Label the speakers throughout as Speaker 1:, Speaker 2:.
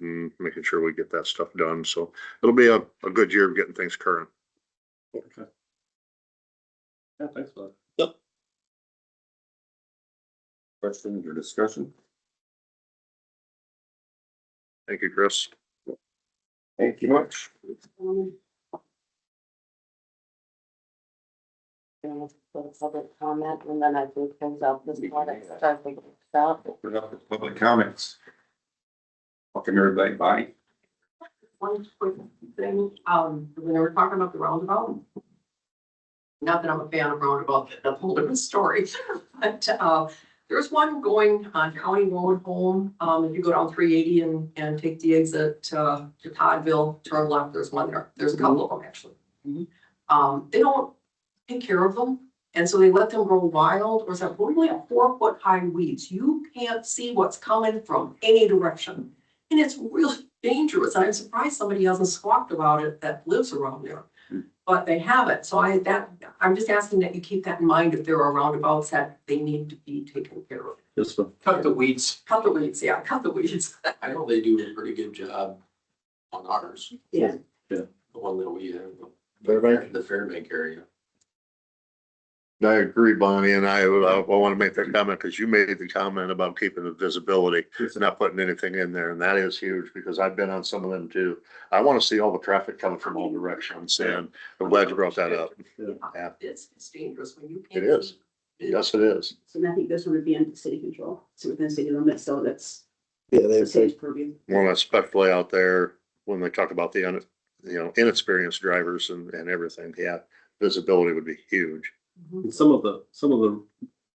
Speaker 1: and making sure we get that stuff done. So it'll be a, a good year of getting things current.
Speaker 2: Okay. Yeah, thanks for that.
Speaker 3: Yep.
Speaker 2: Questions or discussion?
Speaker 1: Thank you, Chris.
Speaker 2: Thank you much.
Speaker 4: Um, and let's go to public comment and then I think things up this morning, start thinking stuff.
Speaker 2: Open up the public comments. Welcome everybody by.
Speaker 5: one quick thing, um, when they were talking about the roundabout. Not that I'm a fan of roundabout, that's a whole different story, but, uh, there's one going on County Road home, um, if you go down three eighty and, and take the exit, uh, to Toddville, turn left, there's one there, there's a couple of them actually. Um, they don't take care of them, and so they let them grow wild, or is that really a four foot high weeds, you can't see what's coming from any direction. And it's really dangerous, and I'm surprised somebody hasn't squawked about it that lives around there.
Speaker 2: Hmm.
Speaker 5: But they haven't, so I, that, I'm just asking that you keep that in mind if there are roundabouts that they need to be taken care of.
Speaker 2: Yes, sir.
Speaker 6: Cut the weeds.
Speaker 5: Cut the weeds, yeah, cut the weeds.
Speaker 6: I know they do a pretty good job on ours.
Speaker 5: Yeah.
Speaker 2: Yeah.
Speaker 6: The one that we have.
Speaker 3: Fairbank?
Speaker 6: The Fairbank area.
Speaker 1: I agree, Bonnie, and I, I want to make that comment because you made the comment about keeping the visibility, not putting anything in there, and that is huge because I've been on some of them too. I want to see all the traffic coming from all directions and I'm glad you brought that up. Yeah.
Speaker 5: It's, it's dangerous when you.
Speaker 1: It
Speaker 5: can't
Speaker 1: is.
Speaker 5: see.
Speaker 1: Yes, it is.
Speaker 7: So then I think this one would be under city control, so within city limits, so that's
Speaker 3: Yeah, they
Speaker 7: the
Speaker 3: say
Speaker 7: city's purview.
Speaker 1: Well, especially out there when they talk about the, un- you know, inexperienced drivers and, and everything, yeah, visibility would be huge.
Speaker 5: Mm-hmm.
Speaker 8: And some of the, some of the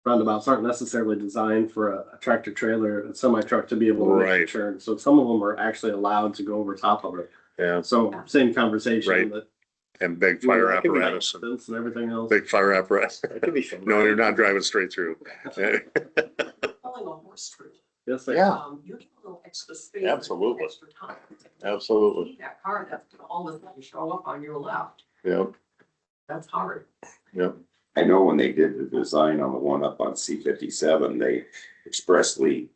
Speaker 8: roundabouts aren't necessarily designed for a a tractor trailer, a semi truck to be able to make a
Speaker 1: Right.
Speaker 8: turn. So some of them are actually allowed to go over top of it.
Speaker 1: Yeah,
Speaker 8: So same conversation
Speaker 1: Right.
Speaker 8: that.
Speaker 1: and big fire apparatus, and
Speaker 8: And everything else.
Speaker 1: big fire apparatus.
Speaker 3: It could be some.
Speaker 1: No, you're not driving straight through.
Speaker 5: Pulling a horse through.
Speaker 8: Yes, they-
Speaker 1: Yeah,
Speaker 5: Um, you get a little extra space. and
Speaker 1: Absolutely.
Speaker 5: Extra time.
Speaker 1: absolutely.
Speaker 5: See That car that's gonna all of a sudden show up on your left,
Speaker 1: Yep,
Speaker 5: that's hard.
Speaker 1: yep.
Speaker 2: I know when they did the design on the one up on C fifty-seven, they expressly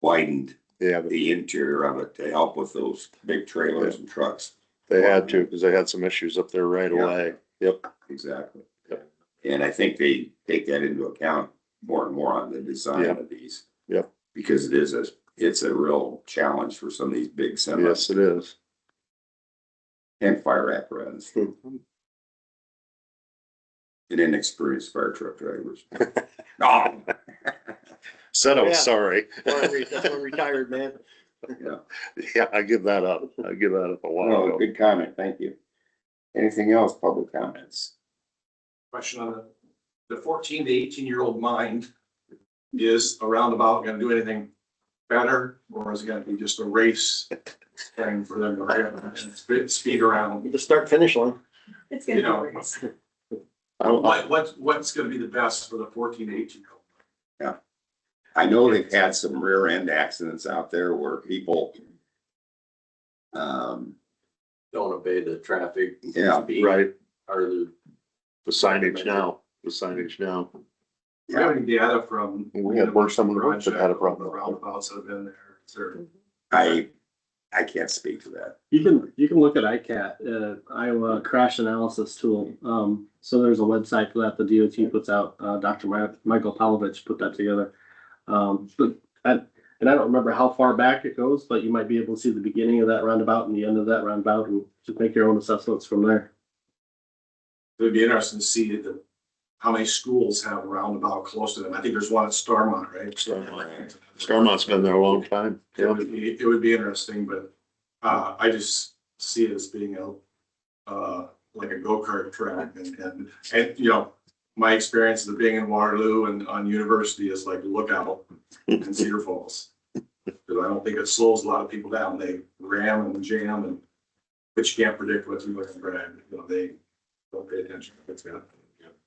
Speaker 2: widened
Speaker 1: Yeah,
Speaker 2: the interior of it to help with those big trailers and trucks.
Speaker 1: they had to because they had some issues up there right
Speaker 2: Yeah.
Speaker 1: away. Yep,
Speaker 2: Exactly.
Speaker 1: Yep.
Speaker 2: And I think they take that into account more and more on the design of these.
Speaker 1: Yep.
Speaker 2: Because it is a, it's a real challenge for some of these big semis
Speaker 1: yes, it is.
Speaker 2: and fire apparatus
Speaker 1: Hmm.
Speaker 2: and inexperienced fire truck drivers. No.
Speaker 1: Said I
Speaker 3: Yeah.
Speaker 1: was sorry.
Speaker 3: Or a re- or a Retired man.
Speaker 1: Yeah, Oh, I give that up. I give that up a while
Speaker 2: Well,
Speaker 1: ago.
Speaker 2: good comment, thank you. Anything else, public comments?
Speaker 6: Question on the fourteen to eighteen year old mind. Is a roundabout gonna do anything better or is it gonna be just a race? Thing for them to speed, speed around?
Speaker 3: The start finish line.
Speaker 7: It's
Speaker 6: You know.
Speaker 7: gonna be.
Speaker 1: I don't-
Speaker 6: What, what's, what's gonna be the best for the fourteen to eighteen year old?
Speaker 2: I know they've had some rear end accidents out there where people. Um,
Speaker 6: Don't obey the traffic.
Speaker 2: yeah,
Speaker 1: Right,
Speaker 6: Or the.
Speaker 1: the signage now, the signage now.
Speaker 6: Do you have any data from?
Speaker 1: We had worked some of the roads that had a problem.
Speaker 6: Roundabouts that have been there, is there?
Speaker 2: I, I can't speak to that.
Speaker 8: You can, you can look at ICAT, uh, Iowa Crash Analysis Tool. Um, so there's a website for that the DOT puts out. Uh, Dr. Mi- Michael Palovich put that together. Um, but I, and I don't remember how far back it goes, but you might be able to see the beginning of that roundabout and the end of that roundabout and just make your own assessments from there.
Speaker 6: It'd be interesting to see the, how many schools have a roundabout close to them. I think there's one at Starmont, right?
Speaker 1: Starmont. Stormont's been there a long time.
Speaker 6: It
Speaker 1: Yeah.
Speaker 6: would be, it would be interesting, but, uh, I just see it as being a, uh, like a go-kart track and, and, and, you know, my experience of being in Waterloo and on university is like look out in Cedar Falls. Cause I don't think it slows a lot of people down. They ram and jam and, but you can't predict what's going to happen. You know, they don't pay attention. It's gonna-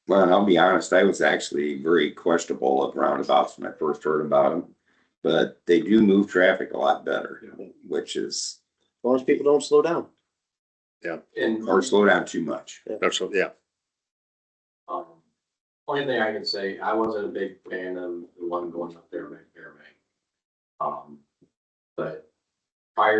Speaker 2: Well, and I'll be honest, I was actually very questionable of roundabouts when I first heard about them. But they do move traffic a lot better, which is,
Speaker 3: As long as people don't slow down.
Speaker 9: And,
Speaker 2: or slow down too much.
Speaker 1: That's, what- yeah,
Speaker 9: um, only thing I can say, I wasn't a big fan of the one going up there by Fairbank. Um, but prior